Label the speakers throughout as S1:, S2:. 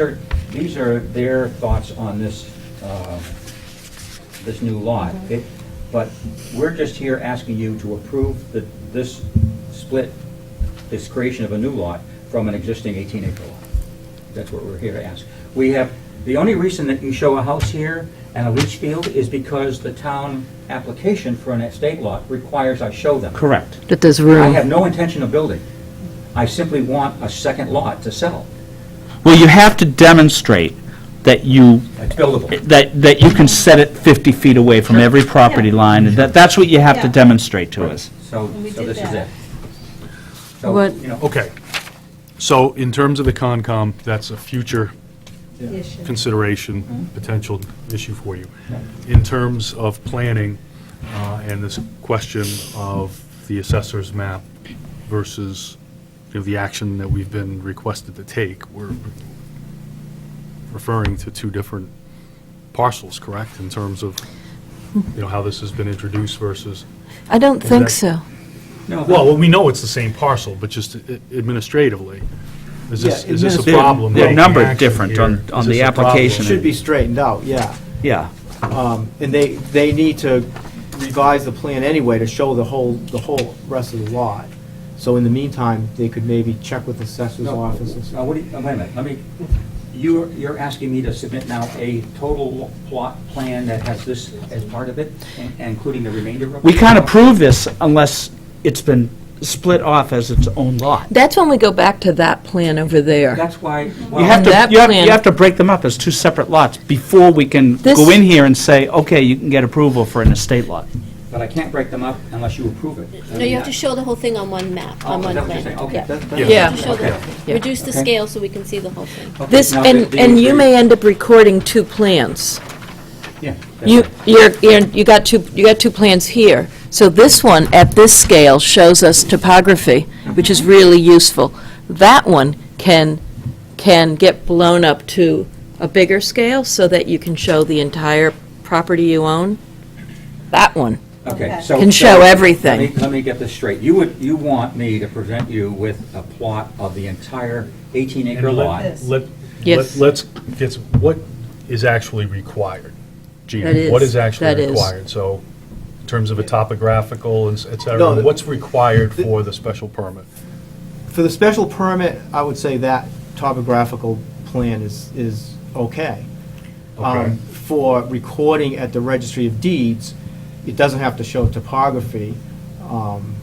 S1: They're- These are their thoughts on this, uh, this new lot. It- But we're just here asking you to approve the, this split, this creation of a new lot from an existing 18-acre lot. That's what we're here to ask. We have, the only reason that you show a house here and a leach field is because the town application for an estate lot requires I show them.
S2: Correct.
S3: That there's
S1: I have
S3: room.
S1: no intention of building. I simply want a second lot to sell.
S2: Well, you have to demonstrate that you,
S1: It's buildable.
S2: that, that you can set it 50 feet away from every property line, and that, that's what you have to
S4: Yeah.
S2: demonstrate to us.
S1: So,
S4: And we
S1: so
S4: did
S1: this is
S4: that.
S1: it. So,
S3: What-
S1: you know, oh,
S5: Okay. So in terms of the Concom, that's a future
S4: issue.
S5: consideration, potential issue for you. In terms of planning uh, and this question of the assessor's map versus, you know, the action that we've been requested to take, we're referring to two different parcels, correct? In terms of, you know, how this has been introduced versus
S3: I don't think
S5: that-
S3: so.
S1: no, but-
S5: Well, we know it's the same parcel, but just i- administratively, is this, is
S6: Yeah,
S5: this a
S6: administrative-
S5: problem?
S2: They're
S5: taking
S2: numbered
S5: action
S2: different
S5: here?
S2: on-
S5: Is
S2: on
S5: this
S2: the
S5: a problem?
S2: application.
S6: Should be straightened out, yeah.
S2: Yeah.
S6: Um, And they, they need to revise the plan anyway to show the whole, the whole rest of the lot. So in the meantime, they could maybe check with the assessor's
S1: No,
S6: office. and
S1: Now,
S6: stuff.
S1: what do you, uh, wait a minute, let me, you're, you're asking me to submit now a total plot plan that has this as part of it, and- including the remainder of it?
S2: We can't approve this unless it's been split off as its own lot.
S3: That's when we go back to that plan over there.
S1: That's why,
S2: You have
S1: well,
S3: And
S2: to,
S3: that
S2: you have,
S3: plan-
S2: you have to break them up as two separate lots before we can
S3: This-
S2: go in here and say, okay, you can get approval for an estate lot.
S1: but I can't break them up unless you approve it.
S4: No, you have to show the whole thing on one map,
S1: Oh,
S4: on
S1: is
S4: one
S1: that what you're saying?
S4: plan.
S1: Okay,
S4: Yeah.
S1: that- that-
S5: Yeah.
S4: You
S3: Yeah.
S4: show the-
S1: Okay.
S4: Reduce the
S1: Okay.
S4: scale so we can see the whole thing.
S1: okay,
S3: This,
S1: now
S3: and,
S1: that-
S3: and you
S1: agree-
S3: may end up recording two plans.
S1: Yeah, that's
S3: You,
S1: right.
S3: you're, you're- you got two, you got two plans here. So this one, at this scale, shows us topography, which is really useful. That one can, can get blown up to a bigger scale so that you can show the entire property you own. That one.
S1: Okay,
S4: Okay.
S1: so.
S3: Can
S1: so
S3: show
S1: let me-
S3: everything.
S1: Let me get this straight. You would, you want me to present you with a plot of the entire eighteen acre
S5: And
S1: lot?
S5: let- let-
S3: Yes.
S5: let- Let's, get some- what is actually required? Gina?
S3: That is-
S5: What is
S3: that
S5: actually
S3: is.
S5: required? So in terms of a topographical and s- et
S6: No,
S5: cetera,
S6: the-
S5: what's required for the special permit?
S6: For the special permit, I would say that topographical plan is, is okay.
S5: Okay.
S6: Um, For recording at the registry of deeds, it doesn't have to show topography. um,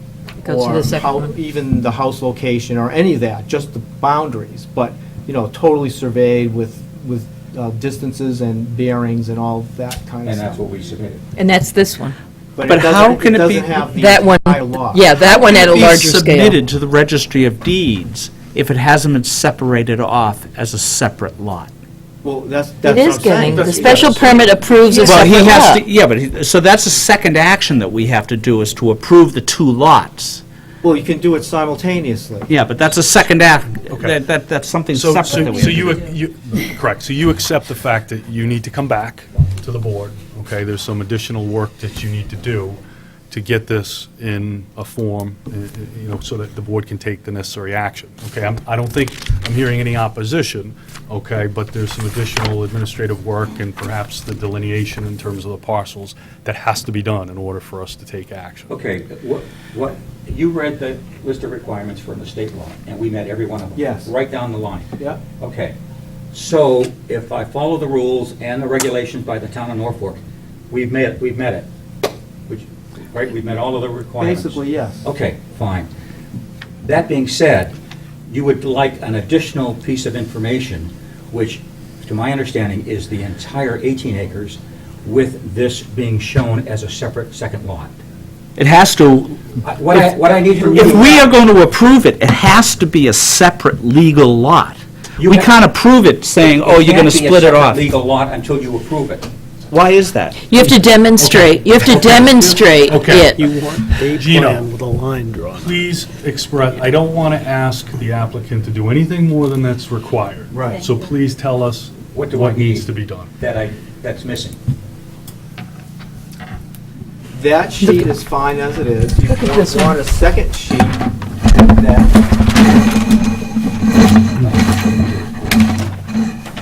S3: Go to
S6: or
S3: the second
S6: how-
S3: one.
S6: Even the house location or any of that, just the boundaries, but, you know, totally surveyed with, with uh, distances and bearings and all that kind of
S1: And that's
S6: stuff.
S1: what we submitted.
S3: And that's this one.
S6: it
S2: But how
S6: doesn't-
S2: can it be-
S6: doesn't have the
S3: That one,
S6: entire lot.
S3: yeah, that one at a
S2: Be
S3: larger scale.
S2: Submitted to the registry of deeds if it hasn't been separated off as a separate lot.
S6: Well, that's, that's
S3: It
S6: what I'm
S3: is getting,
S6: saying.
S3: the
S6: That's-
S3: special permit approves a
S2: Well, he
S3: separate
S2: has
S3: lot.
S2: to, yeah, but, he- so that's a second action that we have to do, is to approve the two lots.
S6: Well, you can do it simultaneously.
S2: Yeah, but that's a second act,
S5: Okay.
S2: that, that, that's something
S5: So,
S2: separate
S5: so
S2: that we
S5: so
S2: have to
S5: you,
S2: do.
S5: you, correct, so you accept the fact that you need to come back to the board, okay? There's some additional work that you need to do to get this in a form, uh, uh, you know, so that the board can take the necessary action, okay? I'm- I don't think I'm hearing any opposition, okay, but there's some additional administrative work and perhaps the delineation in terms of the parcels that has to be done in order for us to take action.
S1: Okay, what, what, you read the list of requirements from the state law, and we met every one of them?
S6: Yes.
S1: Right down the line?
S6: Yeah.
S1: Okay. So if I follow the rules and the regulations by the town of Norfolk, we've met, we've met it. Which, right, we've met all of the requirements?
S6: Basically, yes.
S1: Okay, fine. That being said, you would like an additional piece of information, which, to my understanding, is the entire 18 acres with this being shown as a separate second lot.
S2: It has to,
S1: I- What I, what I need from you...
S2: if we are going to approve it, it has to be a separate legal lot.
S1: You
S2: We
S1: have-
S2: can't approve it saying, oh, you're going to split it
S1: It can't
S2: off.
S1: be a separate legal lot until you approve it.
S2: Why is that?
S3: You have to demonstrate, you have to demonstrate
S5: Okay.
S3: it.
S7: You want a
S5: Gino.
S7: plan with a line drawn.
S5: please express, I don't want to ask the applicant to do anything more than that's required.
S6: Right.
S5: So please tell us
S1: What
S5: what
S1: do I
S5: needs
S1: need?
S5: to be done.
S1: That I, that's missing.
S6: That sheet is fine as it is. You
S3: at this
S6: don't
S3: one.
S6: want a second sheet that